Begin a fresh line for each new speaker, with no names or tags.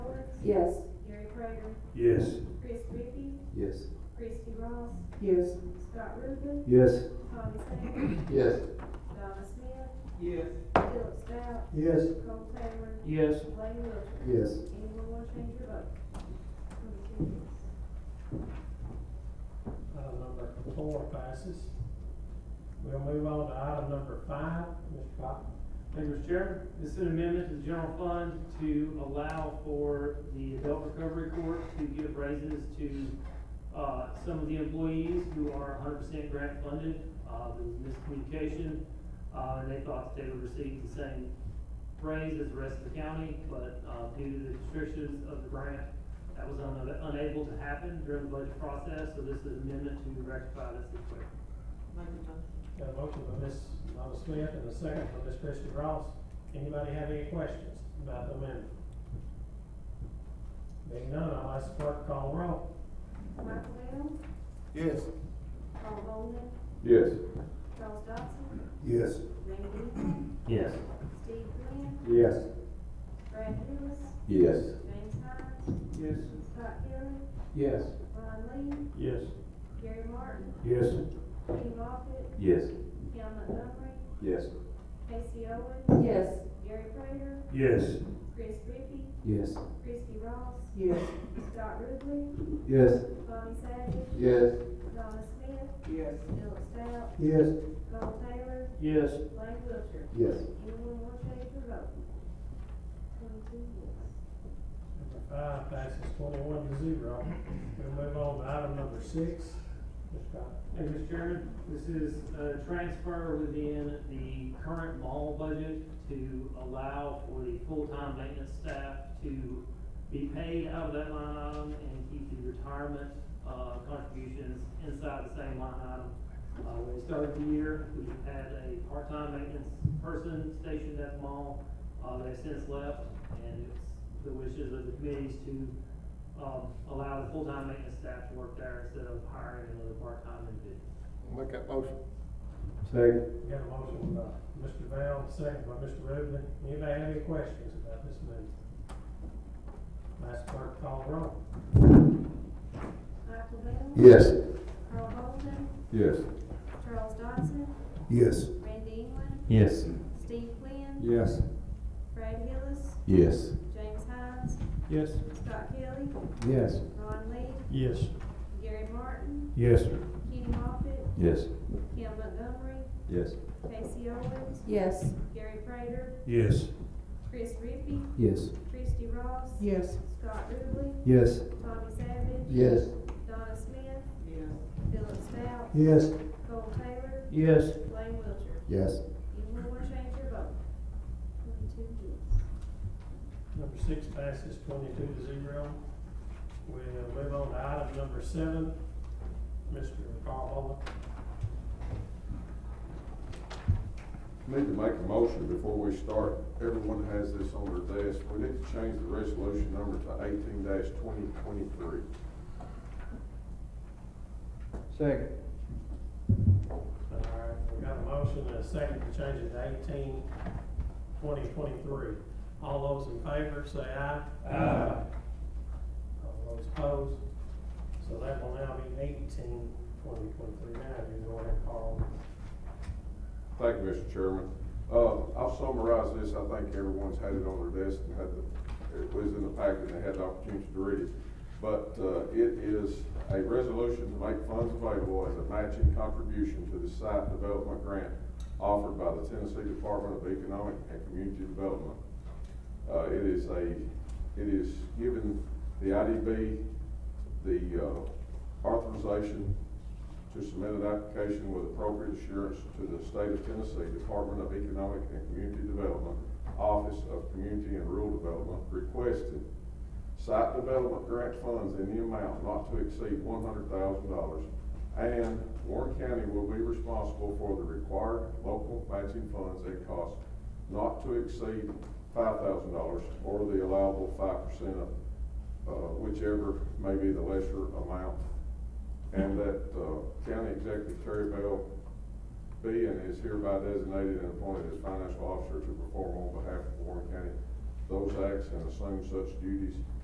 Yes.
Gary Prater,
Yes.
Chris Rippey,
Yes.
Christie Ross,
Yes.
Scott Rubin,
Yes.
Tommy Savage,
Yes.
Donna Smith,
Yes.
Philip Stout,
Yes.
Cole Taylor,
Yes.
Lane Wilcher.
Yes.
Anyone want to change your vote? Twenty-two yes.
Item number four passes. We'll move on to item number five, Mr. Cox.
Thank you, Mr. Chair. This is an amendment to the general fund to allow for the adult recovery court to give raises to, uh, some of the employees who are hundred percent grant funded. Uh, there was miscommunication, uh, and they thought they would receive the same raise as the rest of the county, but, uh, due to the restrictions of the grant, that was un- unable to happen during the budget process, so this is an amendment to rectify this situation.
Got a motion by Ms. Donna Smith and a second by Ms. Christie Ross. Anybody have any questions about the amendment? Being none, I'll ask the clerk to call the roll.
Michael Bell,
Yes.
Paul Bowman,
Yes.
Charles Dodson,
Yes.
Randy Newman,
Yes.
Steve Glenn,
Yes.
Brad Lewis,
Yes.
James Hines,
Yes.
Scott Kelly,
Yes.
Ron
Yes.
Lee, Gary Martin,
Yes.
Kenny Moffitt,
Yes.
Cam Montgomery,
Yes.
Casey Owens,
Yes.
Gary Prater,
Yes.
Chris Rippey,
Yes.
Christie Ross,
Yes.
Scott Ruble,
Yes.
Tommy Savage,
Yes.
Donna Smith,
Yes.
Philip Stout,
Yes.
Cole Taylor,
Yes.
Lane Wilcher.
Yes.
Anyone want to change their vote? Twenty-two yes.
Number five passes twenty-one to zero. We'll move on to item number six. Mr. Cox.
Thank you, Mr. Chairman. This is a transfer within the current mall budget to allow for the full-time maintenance staff to be paid out of that line item and keep the retirement, uh, contributions inside the same line item. Uh, when we started the year, we had a part-time maintenance person stationed at the mall. Uh, they've since left, and it's the wishes of the committees to um, allow the full-time maintenance staff to work there instead of hiring another part-time individual.
Make that motion. Second.
We got a motion by Mr. Bell, second by Mr. Rubin. Anybody have any questions about this amendment? Ask the clerk to call the roll.
Michael Bell.
Yes.
Carl Bolden,
Yes.
Charles Dodson,
Yes.
Randy England,
Yes.
Steve Glenn,
Yes.
Brad Hillis,
Yes.
James Hines,
Yes.
Scott Kelly,
Yes.
Ron Lee,
Yes.
Gary Martin,
Yes.
Kenny Moffitt,
Yes.
Cam Montgomery,
Yes.
Casey Owens,
Yes.
Gary Prater,
Yes.
Chris Rippey,
Yes.
Christie Ross,
Yes.
Scott Ruble,
Yes.
Tommy Savage,
Yes.
Donna Smith,
Yes.
Philip Stout,
Yes.
Cole Taylor,
Yes.
Lane Wilcher.
Yes.
Anyone want to change your vote? Twenty-two yes.
Number six passes twenty-two to zero. We'll move on to item number seven. Mr. Carl
Need to make a motion before we start. Everyone has this on their desk. We need to change the resolution number to eighteen twenty twenty-three.
Second.
Holman. All right, we got a motion and a second to change it to eighteen twenty twenty-three. All those in favor, say aye.
Aye.
All those opposed? So that will now be eighteen twenty twenty-three. Now you go ahead, Carl.
Thank you, Mr. Chairman. Uh, I'll summarize this. I think everyone's had it on their desk and had the, it was in the packet and they had the opportunity to read it. But, uh, it is a resolution to make funds available as a matching contribution to the site development grant offered by the Tennessee Department of Economic and Community Development. Uh, it is a, it is giving the IDB the, uh, authorization to submit an application with appropriate assurance to the State of Tennessee Department of Economic and Community Development, Office of Community and Rural Development, requesting site development grant funds in the amount not to exceed one hundred thousand dollars. And Warren County will be responsible for the required local matching funds at cost not to exceed five thousand dollars or the allowable five percent of, uh, whichever may be the lesser amount. And that, uh, County Executive Terry Bell be and is hereby designated and appointed as financial officer to perform on behalf of Warren County those acts and assume such duties